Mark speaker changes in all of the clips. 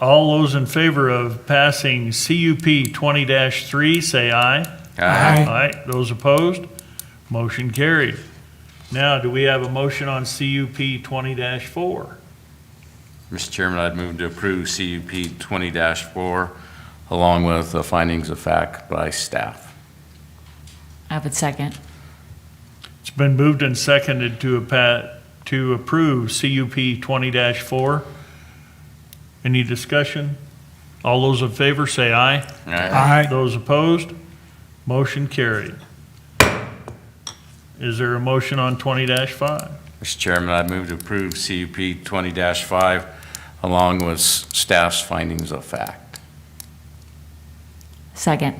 Speaker 1: All those in favor of passing CUP 20-3, say aye.
Speaker 2: Aye.
Speaker 1: Aye. Those opposed? Motion carried. Now, do we have a motion on CUP 20-4?
Speaker 2: Mr. Chairman, I'd move to approve CUP 20-4 along with the findings of fact by staff.
Speaker 3: I would second.
Speaker 1: It's been moved and seconded to a pa- to approve CUP 20-4. Any discussion? All those in favor, say aye.
Speaker 4: Aye.
Speaker 1: Those opposed? Motion carried. Is there a motion on 20-5?
Speaker 2: Mr. Chairman, I'd move to approve CUP 20-5 along with s- staff's findings of fact.
Speaker 3: Second.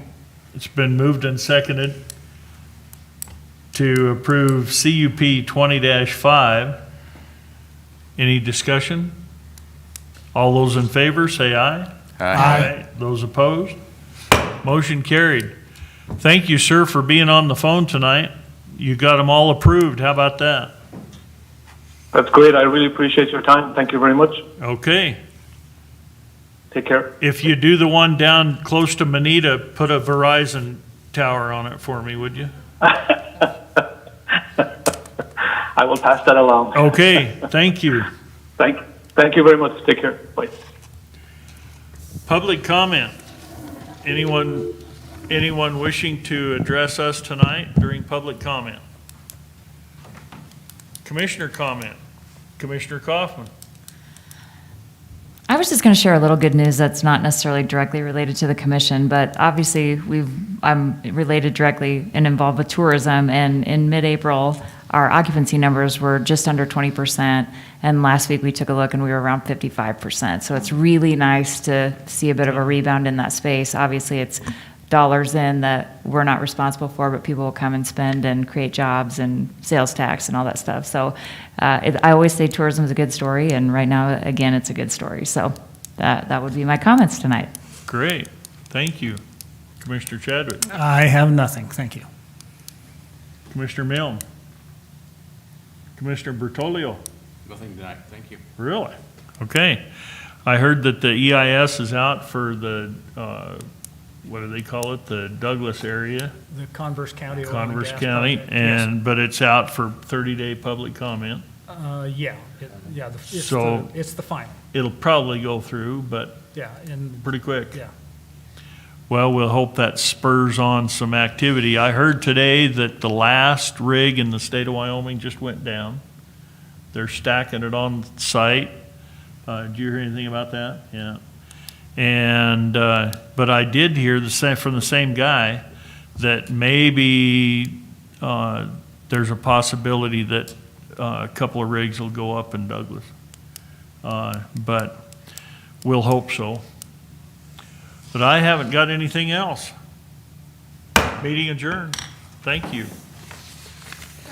Speaker 1: It's been moved and seconded to approve CUP 20-5. Any discussion? All those in favor, say aye. Those opposed? Motion carried. Thank you, sir, for being on the phone tonight. You got them all approved. How about that?
Speaker 5: That's great. I really appreciate your time. Thank you very much.
Speaker 1: Okay.
Speaker 5: Take care.
Speaker 1: If you do the one down close to Manita, put a Verizon tower on it for me, would you?
Speaker 5: I will pass that along.
Speaker 1: Okay, thank you.
Speaker 5: Thank, thank you very much. Take care. Bye.
Speaker 1: Public comment. Anyone, anyone wishing to address us tonight during public comment? Commissioner comment. Commissioner Kaufman.
Speaker 3: I was just going to share a little good news that's not necessarily directly related to the commission, but obviously we've, I'm related directly and involved with tourism. And in mid-April, our occupancy numbers were just under 20%. And last week we took a look and we were around 55%. So it's really nice to see a bit of a rebound in that space. Obviously, it's dollars in that we're not responsible for, but people will come and spend and create jobs and sales tax and all that stuff. So uh, it, I always say tourism is a good story, and right now, again, it's a good story. So that, that would be my comments tonight.
Speaker 1: Great, thank you. Commissioner Chadwick.
Speaker 4: I have nothing, thank you.
Speaker 1: Commissioner Milne. Commissioner Bertolio.
Speaker 2: Nothing tonight, thank you.
Speaker 1: Really? Okay. I heard that the EIS is out for the, uh, what do they call it? The Douglas area,
Speaker 4: The Converse County. oil and
Speaker 1: Converse
Speaker 4: gas
Speaker 1: County,
Speaker 4: project, yes.
Speaker 1: and, but it's out for 30-day public comment.
Speaker 4: Uh, yeah, it- yeah, the- it's the,
Speaker 1: So-
Speaker 4: it's the final,
Speaker 1: It'll probably go through, but
Speaker 4: yeah, and,
Speaker 1: pretty quick.
Speaker 4: yeah.
Speaker 1: Well, we'll hope that spurs on some activity. I heard today that the last rig in the state of Wyoming just went down. They're stacking it on site. Uh, did you hear anything about that? Yeah. And, uh, but I did hear the same, from the same guy, that maybe, uh, there's a possibility that, uh, a couple of rigs will go up in Douglas. Uh, but we'll hope so. But I haven't got anything else. Meeting adjourned. Thank you.